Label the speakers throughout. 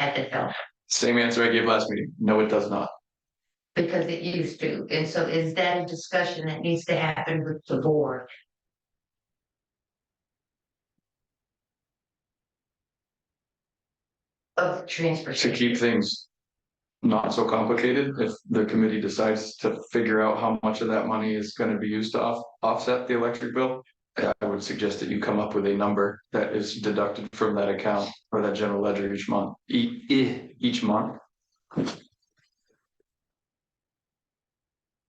Speaker 1: I could tell,
Speaker 2: Same answer I gave last meeting. No, it does not.
Speaker 1: because it used to, and so is that a discussion that needs to happen with the board? Of the transfer.
Speaker 2: To
Speaker 1: station.
Speaker 2: keep things not so complicated, if the committee decides to figure out how much of that money is gonna be used to off, offset the electric bill, I would suggest that you come up with a number that is deducted from that account or that general ledger each month, e- e- each month.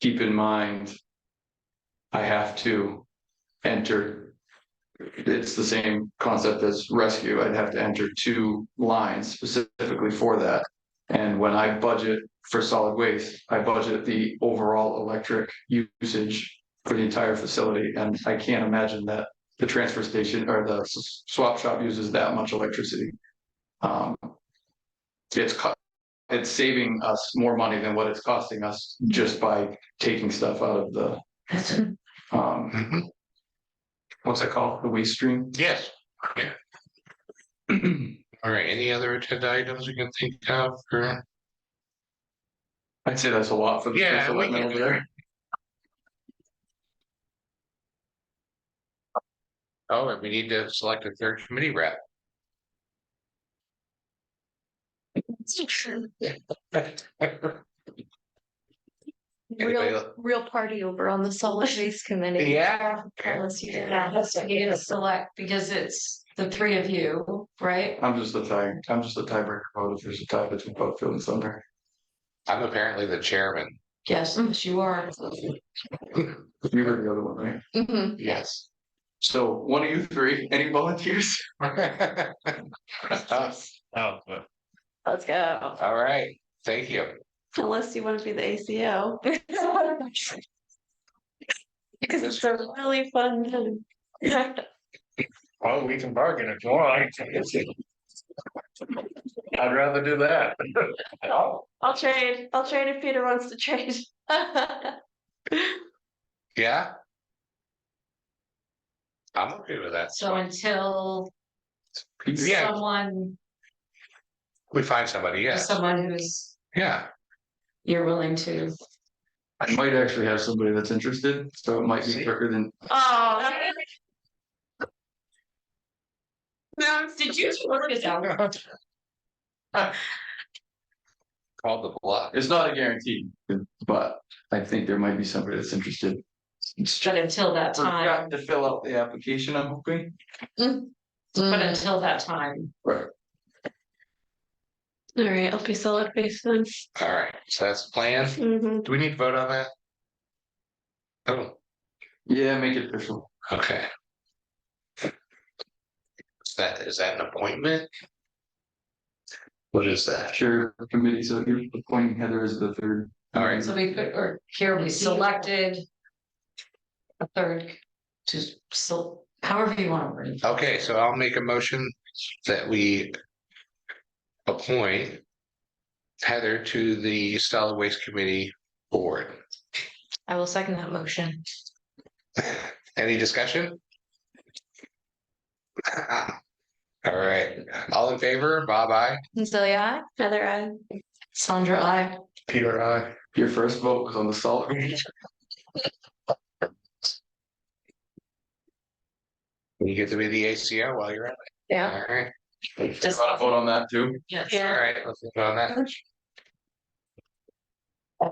Speaker 2: Keep in mind, I have to enter. It's the same concept as rescue. I'd have to enter two lines specifically for that. And when I budget for solid waste, I budget the overall electric usage for the entire facility. And I can't imagine that the transfer station or the s- swap shop uses that much electricity. Um, It's cut, it's saving us more money than what it's costing us just by taking stuff out of the
Speaker 1: That's what
Speaker 2: um,
Speaker 3: Mhm.
Speaker 2: what's it called? The waste stream?
Speaker 3: Yes. Yeah. All right, any other agenda items you can think of or?
Speaker 2: I'd say that's a lot for the.
Speaker 3: Yeah,
Speaker 2: special
Speaker 3: we
Speaker 2: election
Speaker 3: can-
Speaker 2: over there.
Speaker 3: Oh, and we need to select a third committee rep. Anybody
Speaker 4: Real,
Speaker 3: el-
Speaker 4: real party over on the solid waste committee.
Speaker 3: Yeah.
Speaker 4: Unless you
Speaker 5: Yeah,
Speaker 4: did
Speaker 5: that
Speaker 4: that.
Speaker 5: has to be a select because it's the three of you, right?
Speaker 2: I'm just the tie, I'm just the tiebreaker vote if there's a tie between Buckfield and Sumner.
Speaker 3: I'm apparently the chairman.
Speaker 5: Yes, yes, you are.
Speaker 2: You were the other one, right?
Speaker 4: Mhm.
Speaker 5: Mm-hmm.
Speaker 3: Yes.
Speaker 2: So one of you three, any volunteers?
Speaker 3: Us. Oh, good.
Speaker 4: Let's go.
Speaker 3: all right, thank you.
Speaker 4: Unless you want to be the ACO. Because it's a really fun. time.
Speaker 3: Well, we can bargain if you want. I'd rather do that.
Speaker 4: I'll trade, I'll trade if Peter wants to trade.
Speaker 3: Yeah. I'm okay with that.
Speaker 5: So until
Speaker 3: Yeah,
Speaker 5: someone,
Speaker 3: we find somebody, yeah,
Speaker 5: someone who's,
Speaker 3: yeah.
Speaker 5: you're willing to.
Speaker 2: I might actually have somebody that's interested, so it might be quicker than,
Speaker 4: Oh.
Speaker 5: No. Did you work it out?
Speaker 3: Called the bluff.
Speaker 2: it's not a guarantee, but I think there might be somebody that's interested.
Speaker 5: But until that
Speaker 4: Mm.
Speaker 5: time,
Speaker 2: Forgot To fill out the application, I'm hoping.
Speaker 5: but
Speaker 4: All
Speaker 5: until that time,
Speaker 4: right, I'll be solid waste then.
Speaker 3: All right, so that's the plan.
Speaker 4: Mhm.
Speaker 3: Do we need to vote on that? Oh,
Speaker 2: Yeah, make it official.
Speaker 3: okay. Is that, is that an appointment? What is that?
Speaker 2: Sure, committee, so you're appointing Heather as the third.
Speaker 3: All right.
Speaker 5: so we could, or here we selected. A third to, so however you want to word it.
Speaker 3: Okay, so I'll make a motion that we appoint Heather to the solid waste committee board.
Speaker 5: I will second that motion.
Speaker 3: Any discussion? All right, all in favor, Bob, I.
Speaker 4: Celia, aye. Heather, aye.
Speaker 5: Sandra, I.
Speaker 3: Peter, I.
Speaker 2: Your first vote was on the solid.
Speaker 3: You get to be the ACO while you're at it.
Speaker 4: Yeah.
Speaker 3: All right,
Speaker 5: Just-
Speaker 2: Wanna Vote on that too.
Speaker 5: Yes.
Speaker 3: all right, let's vote on that.
Speaker 5: I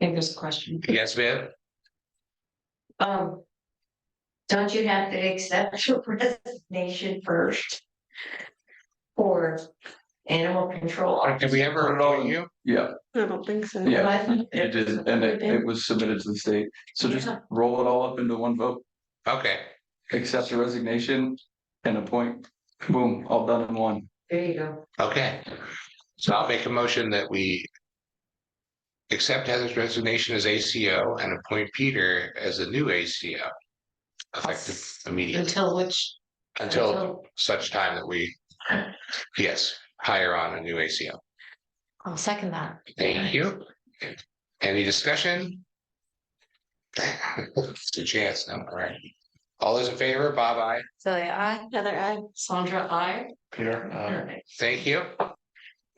Speaker 5: think there's a question.
Speaker 3: Yes, Viv?
Speaker 1: Um. Don't you have to accept your resignation first? For animal control.
Speaker 3: Have we ever known you?
Speaker 2: Yeah,
Speaker 4: I don't think so.
Speaker 2: Yeah.
Speaker 1: But-
Speaker 2: it did, and it, it was submitted to the state. So just
Speaker 1: Yeah.
Speaker 2: roll it all up into one vote.
Speaker 3: Okay,
Speaker 2: accept the resignation and appoint, boom, all done in one.
Speaker 1: There you go.
Speaker 3: okay. So I'll make a motion that we accept Heather's resignation as ACO and appoint Peter as the new ACO effective immediately
Speaker 5: Until which?
Speaker 3: until such time that we, yes, hire on a new ACO.
Speaker 5: I'll second that.
Speaker 3: Thank you. Any discussion? It's a chance, no, all right. All those in favor, Bob, I.
Speaker 4: Celia, aye. Heather, aye.
Speaker 5: Sandra, I.
Speaker 3: Peter. Thank you.